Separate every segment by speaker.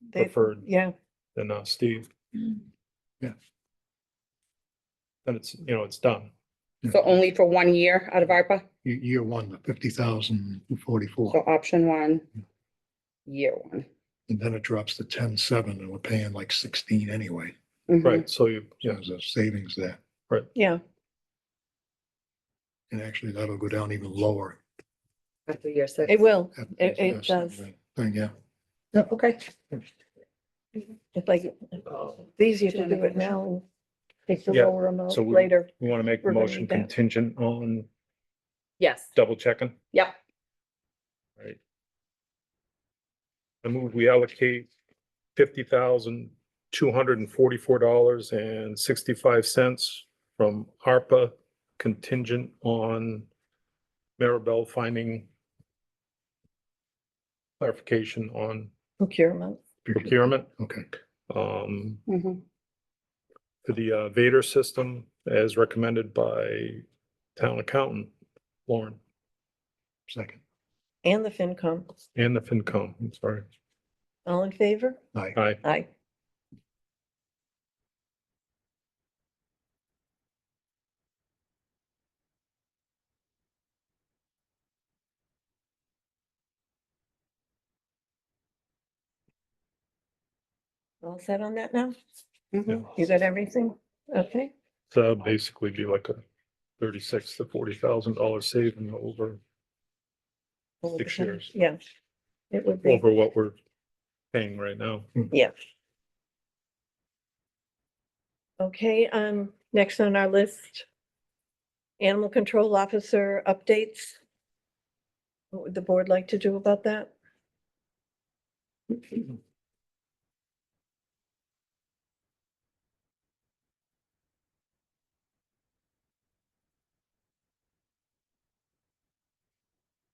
Speaker 1: They-
Speaker 2: preferred
Speaker 1: Yeah,
Speaker 2: than uh, Steve. Yeah. Then it's, you know, it's done.
Speaker 3: So only for one year out of ARPA,
Speaker 4: Year, year one, the fifty thousand
Speaker 3: so
Speaker 4: forty-four,
Speaker 3: option one, year one.
Speaker 4: and then it drops to ten-seven, and we're paying like sixteen anyway.
Speaker 3: Mhm.
Speaker 2: Right, so you,
Speaker 4: So
Speaker 2: yeah,
Speaker 4: There's a savings there,
Speaker 1: yeah.
Speaker 4: and actually that'll go down even lower.
Speaker 3: After year six.
Speaker 1: It will.
Speaker 4: after
Speaker 1: It-
Speaker 4: this-
Speaker 1: it
Speaker 4: this
Speaker 1: does.
Speaker 4: Thing, yeah.
Speaker 3: Okay.
Speaker 1: It's like, it's easier to do it now. and Take the
Speaker 2: Yeah,
Speaker 1: lower amount
Speaker 2: so we-
Speaker 1: later.
Speaker 2: we want to make the
Speaker 1: We're gonna
Speaker 2: motion
Speaker 1: need that.
Speaker 2: contingent on
Speaker 3: Yes,
Speaker 2: double checking.
Speaker 3: yep,
Speaker 2: Right. I move we allocate fifty thousand, two hundred and forty-four dollars and sixty-five cents from ARPA contingent on Maribel finding clarification on
Speaker 1: Procurement.
Speaker 2: procurement,
Speaker 4: Okay,
Speaker 2: um,
Speaker 3: mhm,
Speaker 2: to the uh, Vader system as recommended by town accountant Lauren
Speaker 4: second,
Speaker 1: And the FinCom.
Speaker 2: and the FinCom, I'm sorry.
Speaker 1: All in favor?
Speaker 4: aye.
Speaker 2: Aye.
Speaker 1: Aye. All set on that now?
Speaker 3: mhm.
Speaker 1: You got everything? Okay,
Speaker 2: So that'd basically be like a thirty-six to forty thousand dollar saving over,
Speaker 1: All the
Speaker 2: Six
Speaker 1: time.
Speaker 2: years.
Speaker 1: Yeah. It would be,
Speaker 2: over what we're paying right now.
Speaker 1: yeah. Okay, um, next on our list. Animal control officer updates. What would the board like to do about that?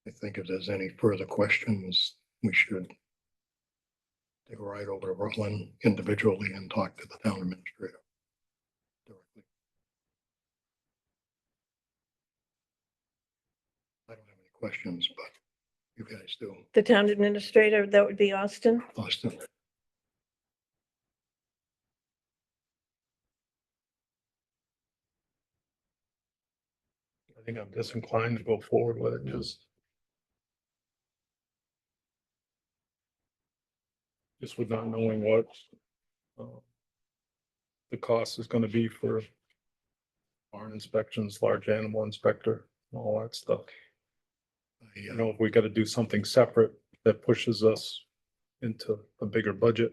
Speaker 4: I think if there's any further questions, we should take a ride over to Rutland individually and talk to the town administrator. directly. I don't have any questions, but you guys do,
Speaker 1: The town administrator, that would be Austin.
Speaker 4: Austin.
Speaker 2: I think I'm disinclined to go forward with it, just. Just with not knowing what. uh, The cost is gonna be for. Barn inspections, large animal inspector, and all that stuff.
Speaker 4: I,
Speaker 2: You
Speaker 4: uh,
Speaker 2: know, if we gotta do something separate that pushes us into a bigger budget.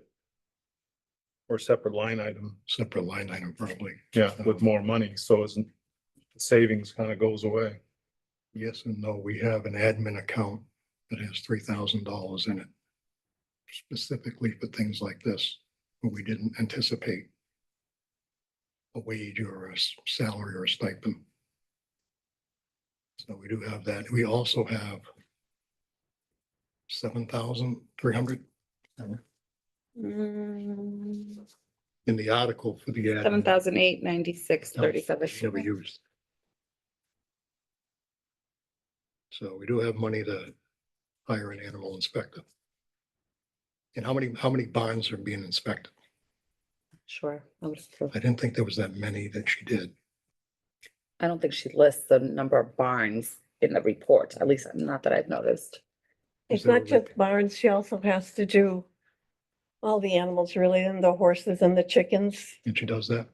Speaker 2: Or separate line item,
Speaker 4: Separate line item probably,
Speaker 2: yeah, with more money, so isn't, the savings kind of goes away.
Speaker 4: yes and no, we have an admin account that has three thousand dollars in it. Specifically for things like this, where we didn't anticipate. A wage or a s- salary or a stipend. So we do have that, we also have. Seven thousand three hundred
Speaker 3: Mm,
Speaker 4: in the article for the. admin.
Speaker 3: Seven thousand eight ninety-six thirty-seven.
Speaker 4: Never used. So we do have money to hire an animal inspector. And how many, how many barns are being inspected?
Speaker 3: Sure, I would approve.
Speaker 4: I didn't think there was that many that she did.
Speaker 3: I don't think she lists the number of barns in the report, at least not that I've noticed.
Speaker 1: It's
Speaker 4: there a
Speaker 1: not just
Speaker 4: rec-
Speaker 1: barns, she also has to do all the animals really, and the horses and the chickens.
Speaker 4: And she does that.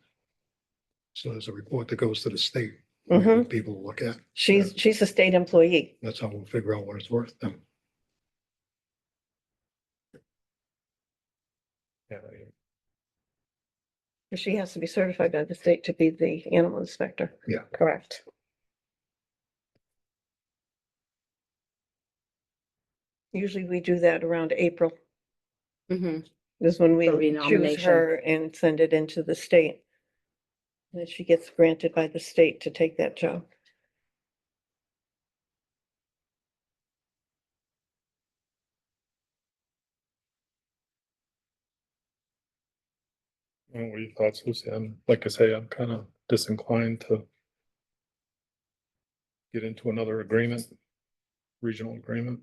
Speaker 4: So there's a report that goes to the state.
Speaker 1: Mhm.
Speaker 4: that People look at.
Speaker 1: She's, she's a state employee.
Speaker 4: That's how we'll figure out what it's worth then.
Speaker 2: Yeah,
Speaker 1: She has to be certified by the state to be the animal inspector.
Speaker 3: Correct.
Speaker 1: Usually we do that around April,
Speaker 3: Mm-hmm.
Speaker 1: is when we
Speaker 3: For
Speaker 1: choose
Speaker 3: renomination.
Speaker 1: her and send it into the state. And Then she gets granted by the state to take that job.
Speaker 2: Well, What are your thoughts, Lucy? I'm, like I say, I'm kind of disinclined to get into another agreement, regional agreement.